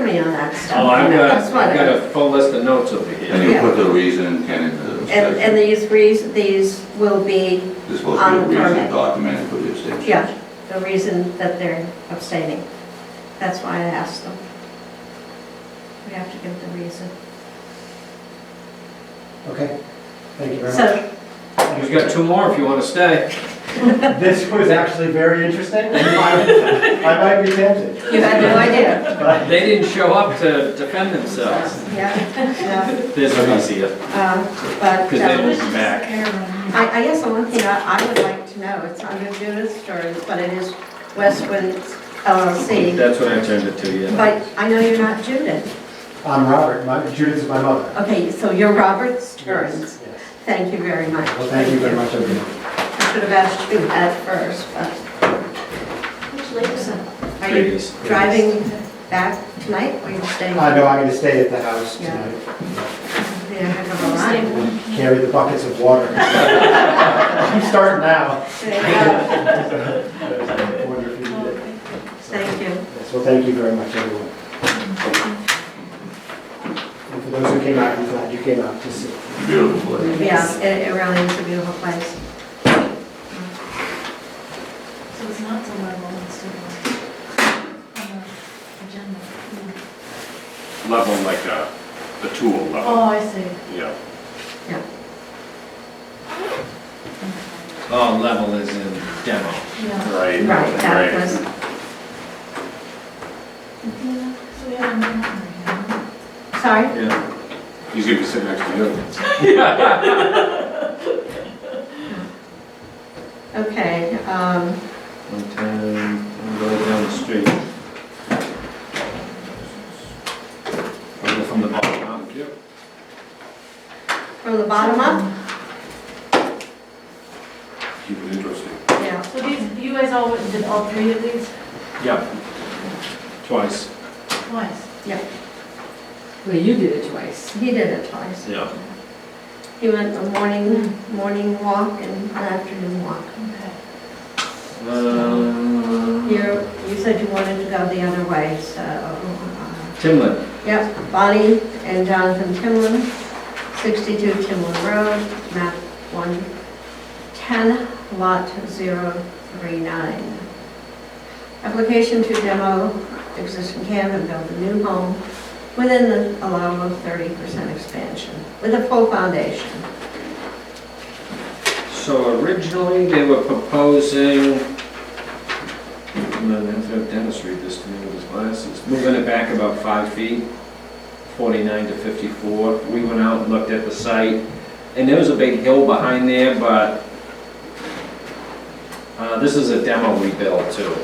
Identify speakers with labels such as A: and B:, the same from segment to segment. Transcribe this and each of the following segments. A: me on that stuff.
B: Oh, I've
A: you know,
B: got,
A: that's what
B: I've got
A: I-
B: a full list of notes over
C: And
B: here.
C: you put the reason and it,
A: And,
C: the
A: and
C: section.
A: these reasons, these will be,
C: There's supposed
A: on
C: to be
A: the
C: a reason
A: permit.
C: documented for the extension.
A: yeah, the reason that they're abstaining. That's why I asked them. We have to give the reason.
D: Okay, thank you very much.
A: So,
B: We've got two more if you want to stay.
D: This was actually very interesting. I might- I might be tempted.
A: you had no idea?
D: but-
B: They didn't show up to defend themselves.
A: Yeah,
B: This is easier,
A: yeah, um, but.
B: because they
A: um,
B: didn't come back.
A: I, I guess the one thing I, I would like to know, it's under Judith's terms, but it is Westwind LLC.
B: That's what I turned it to, yeah.
A: But I know you're not Judith.
D: I'm Robert, my, Judith is my mother.
A: Okay, so you're Robert Stearns.
D: Yes.
A: Thank you very much.
D: Well, thank you very much, everyone.
A: I should have asked you at first, but. Which lady's that? Are you
B: Ladies.
A: driving back tonight or you're staying?
D: I know I'm gonna stay at the house
A: Yeah.
D: tonight,
A: Yeah, heck of a line.
D: carry the buckets of water. I'm starting now.
A: Yeah.
D: I wonder if you
E: Oh,
D: did it.
A: Thank you.
D: Yes, well, thank you very much, everyone. And for those who came out, I'm glad you came out to see.
C: Beautiful place.
A: Yeah, it, it really is a beautiful place.
E: So it's not till level, it's still on the agenda.
F: level like a, a tool level,
E: Oh, I see.
F: yeah.
B: Oh, level is in demo.
E: Yeah.
F: Right.
A: Right, that was,
E: Yeah, So we have a memory, huh?
A: sorry?
B: Yeah.
F: He's gonna be sitting next to you.
A: Okay, um,
B: One time, I'm going down the street. I'll go From the bottom up. Yep.
A: from the bottom up?
F: Keep it interesting.
A: Yeah.
E: So these, you guys all went and did all three of these
B: Yeah. Twice.
E: twice?
G: Well, you did it twice.
A: He did it twice.
B: Yeah.
A: He went a morning, morning walk and an afternoon walk.
E: Okay.
B: Um,
A: You, you said you wanted to go the other way, so, uh,
B: Timlin.
A: yep, Bonnie and Jonathan Timlin, 62 Timlin Road, map 110, lot 039. Application to demo existing camp and build a new home within the allowable 30% expansion with a full foundation.
B: So originally, they were proposing, I'm gonna have to have Dennis read this to me with his glasses, moving it back about five feet, 49 to 54. We went out and looked at the site, and there was a big hill behind there, but uh, this is a demo we built too.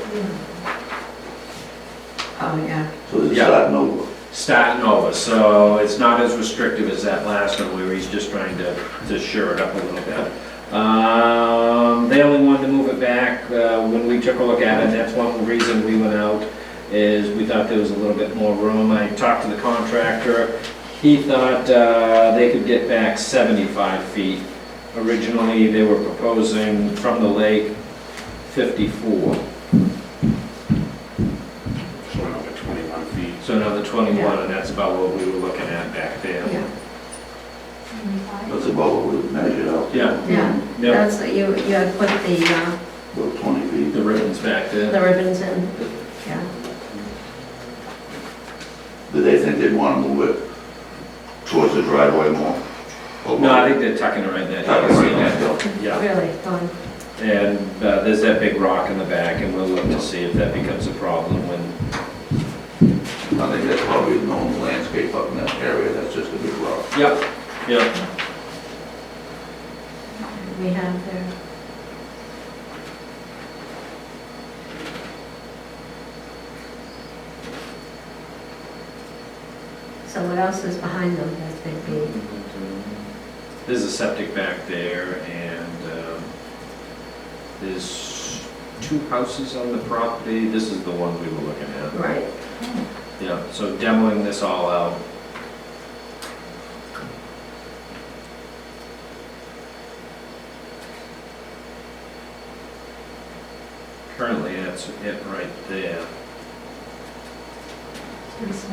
A: Oh, yeah.
C: So it's
B: Yeah.
C: starting over.
B: Starting over, so it's not as restrictive as that last one where he's just trying to, to shore it up a little bit. Um, they only wanted to move it back, uh, when we took a look at it, and that's one reason we went out, is we thought there was a little bit more room. I talked to the contractor, he thought, uh, they could get back seventy-five feet. Originally, they were proposing from the lake fifty-four,
F: So another twenty-one feet.
B: so another twenty-one, and that's about what we were looking at back there.
A: Yeah,
C: That's about what we measured out,
B: Yeah,
A: yeah,
B: yeah.
A: that's, you, you had put the, uh,
C: about 20 feet.
B: The ribbon's back there.
A: the ribbons in, yeah.
C: Did they think they'd want to move it towards the driveway more? Or
B: No, I
C: what?
B: think they're tucking it right there.
C: Tuck it Oh, right in that hill.
B: Yeah,
A: Really fun.
B: and uh, there's that big rock in the back, and we'll look to see if that becomes a problem when,
C: I think that's probably a known landscape up in that area, that's just a big rock.
B: yep, yep.
A: We have there. So what else is behind them that they'd be,
B: There's a septic back there, and um, there's two houses on the property. This is the one we were looking at.
A: right?
E: Hmm.
B: Yeah, so demoing this all out. Currently, that's it right there.
E: It's pretty small.